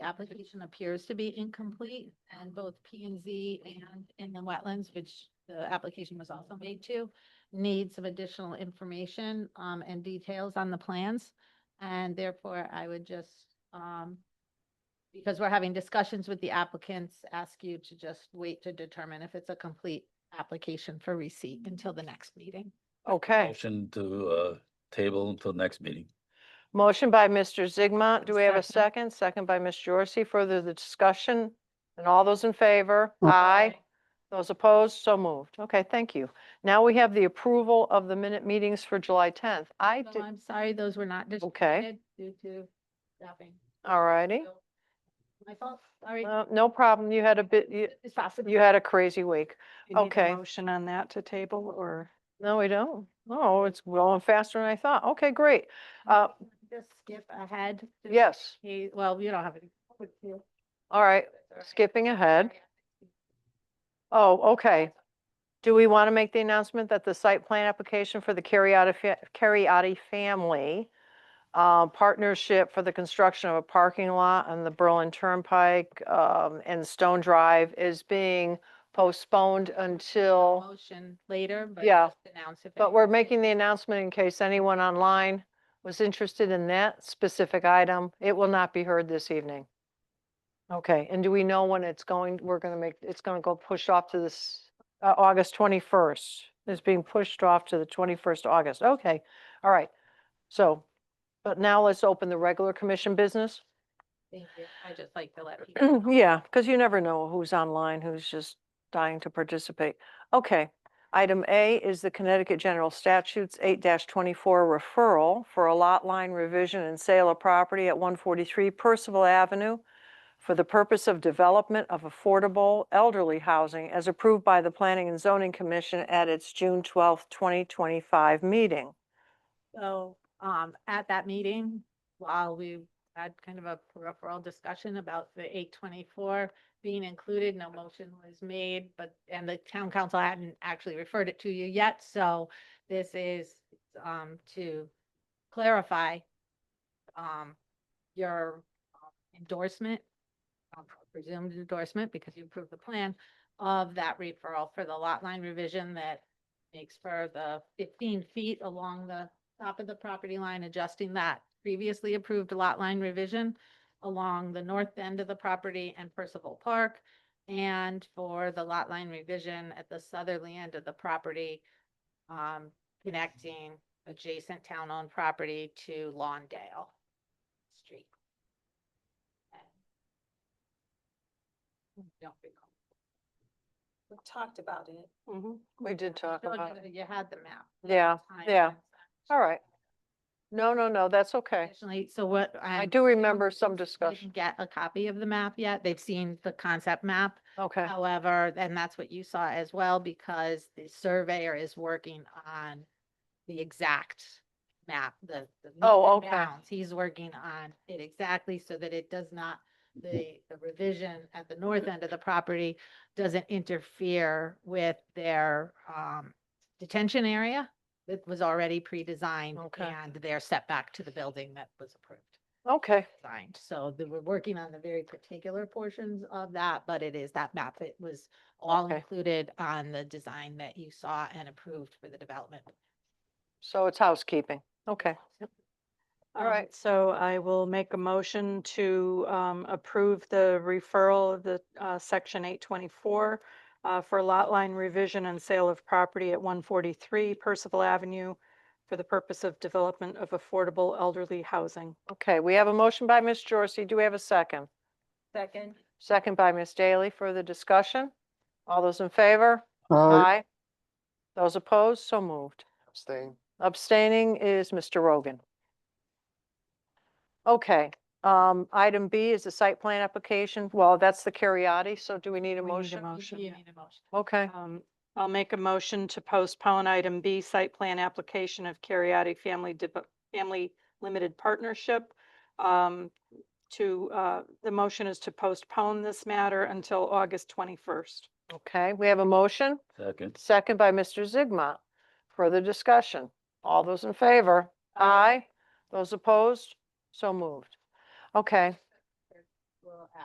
application appears to be incomplete and both P and Z and in the wetlands, which the application was also made to, need some additional information, um, and details on the plans. And therefore I would just, um, because we're having discussions with the applicants, ask you to just wait to determine if it's a complete application for receipt until the next meeting. Okay, Motion to uh, table until next meeting. motion by Mr. Zigmont. Do we have a Second. second? Second by Ms. Jorsy. Further the discussion? And all those in favor? Aye. Those opposed? So moved. Okay, thank you. Now we have the approval of the minute meetings for July 10th. I So did, I'm sorry, those were not okay, distributed due to staffing. all righty. So, My fault, sorry. Uh, No problem. You had a bit, you, It's possible. you had a crazy week. We need a Okay. Motion on that to table or? No, we don't. No, it's going faster than I thought. Okay, great. Uh, Just skip ahead. just yes, in case- Well, you don't have any. all right, skipping ahead. Oh, okay. Do we want to make the announcement that the site plan application for the Cariati, fa- Cariati family uh, partnership for the construction of a parking lot on the Berlin Turnpike um, and Stone Drive is being postponed until, Motion later, but Yeah. just announce if. but we're anyone- making the announcement in case anyone online was interested in that specific item. It will not be heard this evening. Okay, and do we know when it's going, we're going to make, it's going to go pushed off to this, uh, August 21st? It's being pushed off to the 21st August. Okay, all right. So, but now let's open the regular commission business. Thank you. I just like to let people. Mm, Yeah, because you never know who's online, who's just dying to participate. Okay. Item A is the Connecticut General Statutes eight twenty-four referral for a lot line revision and sale of property at one forty-three Percival Avenue for the purpose of development of affordable elderly housing as approved by the Planning and Zoning Commission at its June twelfth, twenty twenty-five meeting. So, um, at that meeting, while we had kind of a peripheral discussion about the eight twenty-four being included, no motion was made, but, and the town council hadn't actually referred it to you yet, so this is, um, to clarify, um, your um, endorsement, um, presumed endorsement, because you approved the plan of that referral for the lot line revision that makes for the fifteen feet along the top of the property line, adjusting that previously approved lot line revision along the north end of the property and Percival Park, and for the lot line revision at the southerly end of the property, um, connecting adjacent town-owned property to Lawndale Street. Don't recall. We talked about it. We did talk Showed about you it. that You had the map. at the Yeah, time, yeah. and All right. No, no, no, that's okay. Additionally, so what? I I'm do assuming remember is some they didn't discussion. Get a copy of the map yet. They've seen the concept map. Okay. However, and that's what you saw as well, because the surveyor is working on the exact map, the. the meets Oh, and okay. bounds. He's working on it exactly so that it does not, the, the revision at the north end of the property doesn't interfere with their, um, detention area that was already pre-designed Okay. and their setback to the building that was approved Okay, signed. So they were working on the very particular portions of that, but it is that map. It was all Okay. included on the design that you saw and approved for the development. so it's housekeeping. Okay, All Um, right. So I will make a motion to um, approve the referral of the uh, section eight twenty-four uh, for lot line revision and sale of property at one forty-three Percival Avenue for the purpose of development of affordable elderly housing. okay. We have a motion by Ms. Jorsy. Do we have a second? Second. Second by Ms. Daly. Further discussion? All those in favor? Aye. Aye. Those opposed? So moved. Abstain. Abstaining is Mr. Rogan. Okay, um, item B is the site plan application. Well, that's the Cariati, so do we need a We need a motion? mo- You- Motion, you yeah. need a motion. Okay, Um, I'll make a motion to postpone item B, site plan application of Cariati Family, Dep- Family Limited Partnership. um, To, uh, the motion is to postpone this matter until August 21st. okay. We have a motion? Second. Second by Mr. Zigma. Further discussion? All those in favor? Aye. Those opposed? So moved. Okay,